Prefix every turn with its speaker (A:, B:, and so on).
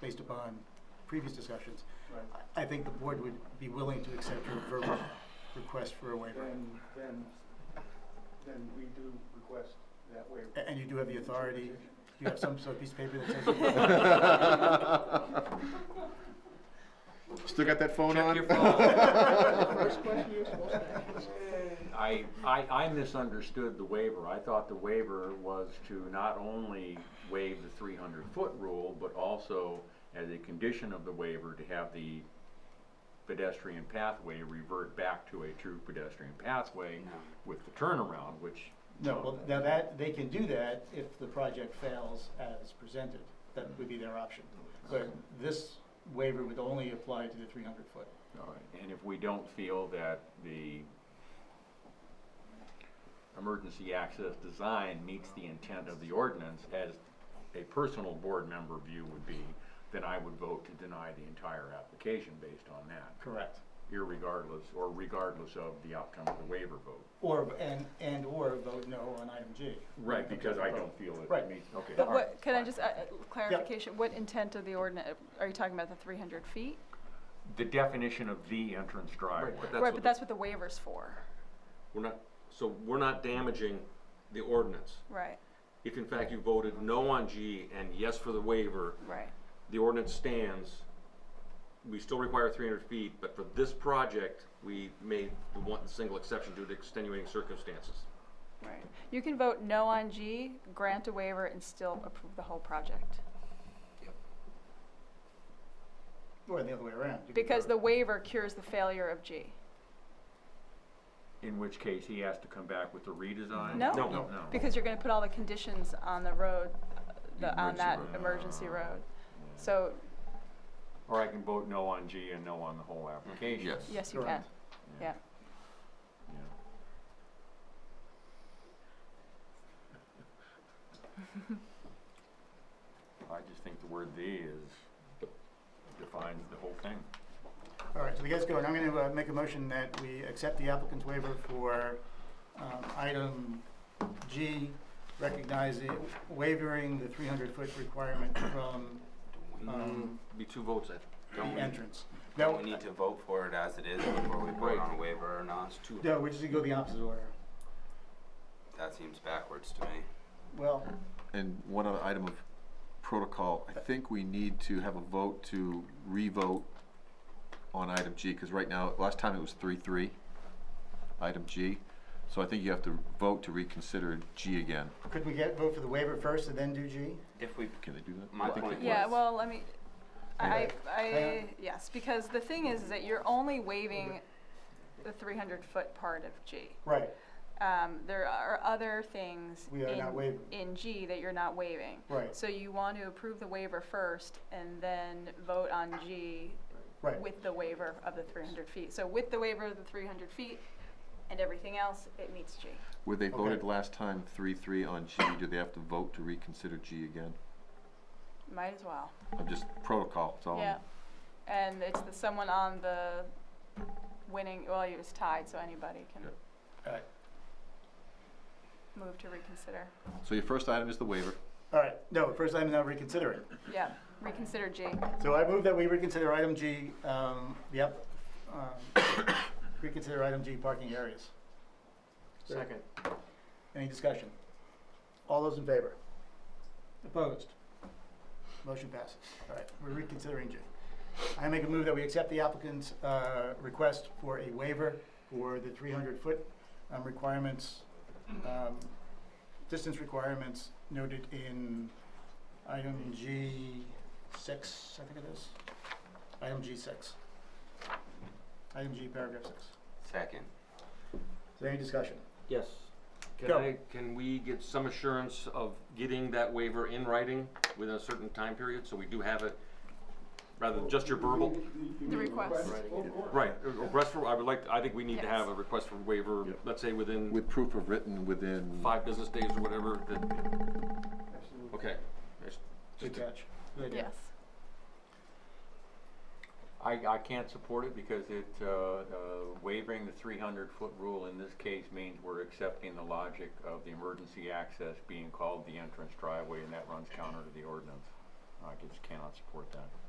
A: based upon previous discussions,
B: Right.
A: I I think the board would be willing to accept your verbal request for a waiver.
B: Then, then, then we do request that waiver.
A: A- And you do have the authority, you have some sort of piece of paper that says.
C: Still got that phone
D: Check
C: on?
D: your phone.
B: First question you're supposed to ask.
D: I, I, I misunderstood the waiver. I thought the waiver was to not only waive the three hundred foot rule, but also as a condition of the waiver to have the pedestrian pathway revert back to a true pedestrian pathway with the turnaround, which.
A: No, well, now that, they can do that if the project fails as presented, that would be their option. But this waiver would only apply to the three hundred foot.
D: All right, and if we don't feel that the emergency access design meets the intent of the ordinance, as a personal board member view would be, then I would vote to deny the entire application based on that,
A: Correct.
D: irregardless, or regardless of the outcome of the waiver vote.
A: Or, and, and or vote no on item G.
D: Right, because I don't feel
A: Right.
D: it meets, okay.
E: But
D: all right.
E: what, can I just, uh, uh, clarification, what intent of the ordinance, are you talking about the three hundred feet?
D: The definition of the entrance driveway.
E: Right, but that's what the waiver's for,
F: We're not, so we're not damaging the ordinance.
E: right,
F: If in fact you voted no on G and yes for the waiver,
E: right,
F: the ordinance stands. We still require three hundred feet, but for this project, we made the one single exception due to extenuating circumstances.
E: right. You can vote no on G, grant a waiver, and still approve the whole project.
A: Or the other way around. You could
E: Because the
A: vote-
E: waiver cures the failure of G.
D: In which case, he has to come back with a redesign?
E: No.
F: No.
D: No.
E: Because you're gonna put all the conditions on the road, uh, the, on
D: Emergency
E: that
D: road.
E: emergency road. So,
D: Or I can vote no on G and no on the whole application.
F: Yes.
E: yes, you can,
A: Correct.
E: yeah.
D: Yeah. I just think the word "the" is, defines the whole thing.
A: All right, so the guy's going, I'm gonna uh, make a motion that we accept the applicant's waiver for, um, item G, recognizing, wavering the three hundred foot requirement from, um,
F: Be two votes, I
A: the
F: don't.
A: entrance.
G: Mm, Don't
A: That-
G: we need to vote for it as it is before we vote
F: Right.
G: on a waiver or not?
F: Two.
A: No, we just go the opposite order.
G: That seems backwards to me.
A: Well,
C: And one other item of protocol, I think we need to have a vote to revote on item G, because right now, last time it was three-three, item G. So I think you have to vote to reconsider G again.
A: could we get, vote for the waiver first and then do G?
G: If we,
C: Can they do that?
G: My
C: I think they
G: point
C: can.
E: Yeah,
G: was-
E: well, let me, I, I,
A: Hang on.
E: yes, because the thing is that you're only waiving the three hundred foot part of G.
A: Right,
E: Um, there are other things
A: We are not
E: in,
A: waiving.
E: in G that you're not waiving.
A: Right.
E: So you want to approve the waiver first and then vote on G
A: right.
E: with the waiver of the three hundred feet. So with the waiver of the three hundred feet and everything else, it meets G.
C: Where they
A: Okay.
C: voted last time three-three on G, do they have to vote to reconsider G again?
E: Might as well,
C: I'm just, protocol, it's all. I'm-
E: yeah. And it's the, someone on the winning, well, it was tied, so anybody can.
C: Yeah.
A: All right.
E: Move to reconsider.
C: So your first item is the waiver.
A: All right, no, first item, now reconsider it.
E: Yeah, reconsider G.
A: So I move that we reconsider item G, um, yep, um, reconsider item G, parking areas.
B: Second.
A: Any discussion? All those in favor? Opposed? Motion passes. All right, we're reconsidering G. I make a move that we accept the applicant's uh, request for a waiver for the 300-foot requirements, um, distance requirements noted in item G6, I think it is. Item G6. Item G, paragraph 6.
G: second.
A: Is there any discussion?
F: Yes. Can
A: Go.
F: I, can we get some assurance of getting that waiver in writing within a certain time period, so we do have it, rather than just your verbal?
E: The request.
F: Right, a request uh, for, I would like, I think we need to have
E: Yes.
F: a request for waiver,
C: Yep.
F: let's say within
C: With proof of written within,
F: five business days or whatever, that,
B: Absolutely.
F: okay. Just-
A: Good catch. Good idea.
E: Yes.
D: I, I can't support it because it, uh, uh, waivering the three hundred foot rule in this case means we're accepting the logic of the emergency access being called the entrance driveway and that runs counter to the ordinance. I just cannot support that.